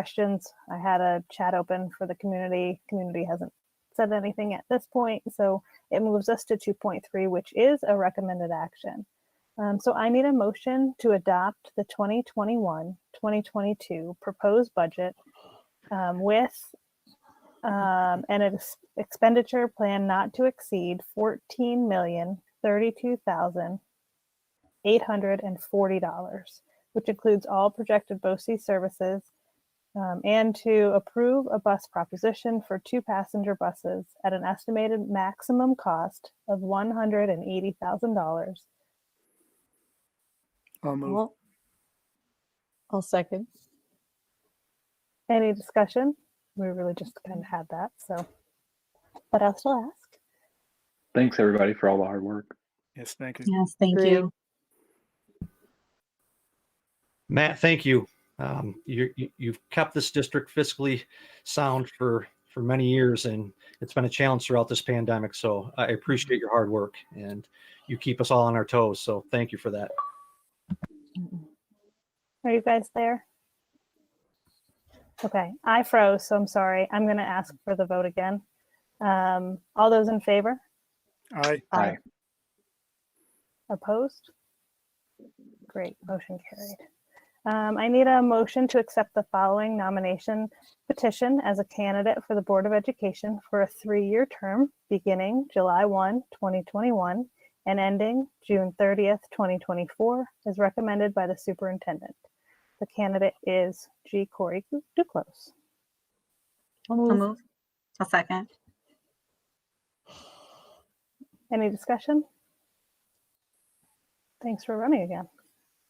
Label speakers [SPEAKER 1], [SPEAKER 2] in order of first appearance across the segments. [SPEAKER 1] questions. I had a chat open for the community. Community hasn't said anything at this point, so it moves us to two point three, which is a recommended action. Um, so I need a motion to adopt the 2021-2022 proposed budget um, with um, and an ex- expenditure plan not to exceed fourteen million thirty-two thousand eight hundred and forty dollars, which includes all projected BOSI services um, and to approve a bus proposition for two passenger buses at an estimated maximum cost of one hundred and eighty thousand dollars.
[SPEAKER 2] I'll move.
[SPEAKER 3] I'll I'll second.
[SPEAKER 1] Any discussion? We really just kind of had that, so. What else to ask?
[SPEAKER 4] Thanks everybody for all the hard work.
[SPEAKER 2] Yes, thank you.
[SPEAKER 5] Yes, thank
[SPEAKER 3] Agree.
[SPEAKER 5] you.
[SPEAKER 6] Matt, thank you. Um, you, you you've kept this district fiscally sound for for many years, and it's been a challenge throughout this pandemic. So I appreciate your hard work, and you keep us all on our toes. So thank you for that.
[SPEAKER 1] Are you guys there? Okay, I froze, so I'm sorry. I'm going to ask for the vote again. Um, all those in favor?
[SPEAKER 2] Aye.
[SPEAKER 4] Aye.
[SPEAKER 1] Opposed? Great, motion carried. Um, I need a motion to accept the following nomination petition as a candidate for the Board of Education for a three-year term beginning July 1, 2021 and ending June 30th, 2024, as recommended by the superintendent. The candidate is G. Corey Duclos.
[SPEAKER 3] I'll
[SPEAKER 5] I'll
[SPEAKER 3] move.
[SPEAKER 5] move. I'll second.
[SPEAKER 1] Any discussion? Thanks for running again.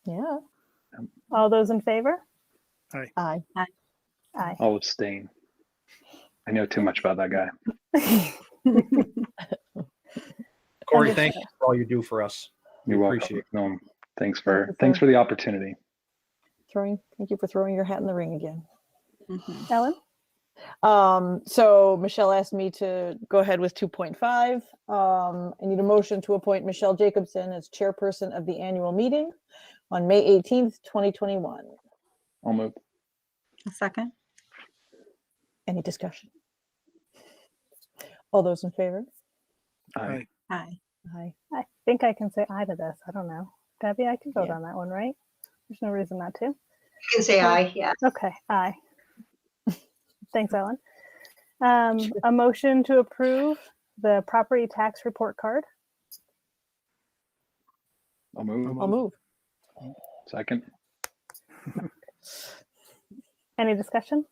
[SPEAKER 3] Yeah.
[SPEAKER 1] All those in favor?
[SPEAKER 3] Aye.
[SPEAKER 1] Aye.
[SPEAKER 4] I'll abstain. I know too much about that guy.
[SPEAKER 6] Corey, thank you for all you do for us.
[SPEAKER 4] You're welcome.
[SPEAKER 6] Appreciate
[SPEAKER 4] Um, thanks for
[SPEAKER 3] Wonderful.
[SPEAKER 4] thanks for the opportunity.
[SPEAKER 3] Throwing. Thank you for throwing your hat in the ring again.
[SPEAKER 5] Mhm.
[SPEAKER 1] Ellen?
[SPEAKER 3] Um, so Michelle asked me to go ahead with 2.5. Um, I need a motion to appoint Michelle Jacobson as chairperson of the annual meeting on May 18th, 2021.
[SPEAKER 4] I'll move.
[SPEAKER 5] I'll second.
[SPEAKER 3] Any discussion? All those in favor?
[SPEAKER 4] Aye.
[SPEAKER 2] Aye.
[SPEAKER 5] Aye.
[SPEAKER 3] Aye.
[SPEAKER 1] I think I can say aye to this. I don't know. Debbie, I can vote
[SPEAKER 3] Yeah.
[SPEAKER 1] on that one, right? There's no reason not to.
[SPEAKER 7] can say
[SPEAKER 1] Yeah.
[SPEAKER 7] aye, yeah.
[SPEAKER 1] Okay, aye. Thanks, Ellen. Um, a motion to approve the property tax report card.
[SPEAKER 4] I'll move.
[SPEAKER 3] I'll move.
[SPEAKER 4] Second.
[SPEAKER 1] Any discussion?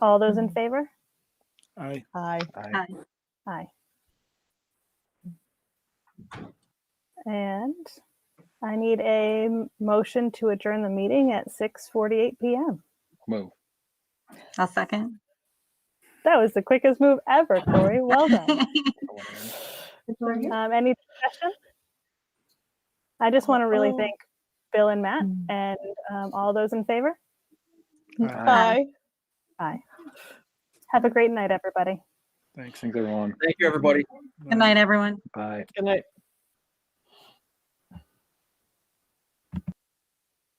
[SPEAKER 1] All those in
[SPEAKER 3] Mhm.
[SPEAKER 1] favor?
[SPEAKER 2] Aye.
[SPEAKER 3] Aye.
[SPEAKER 4] Aye.
[SPEAKER 1] Aye. And I need a m- motion to adjourn the meeting at six forty-eight PM.
[SPEAKER 4] Move.
[SPEAKER 5] I'll second.
[SPEAKER 1] That was the quickest move ever, Corey. Well done. Um, any discussion? I just want to really
[SPEAKER 3] Oh.
[SPEAKER 1] thank Bill and Matt
[SPEAKER 3] Mm.
[SPEAKER 1] and um, all those in favor.
[SPEAKER 4] Aye.
[SPEAKER 3] Aye.
[SPEAKER 1] Aye. Have a great night, everybody.
[SPEAKER 2] Thanks.
[SPEAKER 4] Thanks everyone.
[SPEAKER 6] Thank you, everybody.
[SPEAKER 5] Good night, everyone.
[SPEAKER 4] Bye.
[SPEAKER 3] Good night.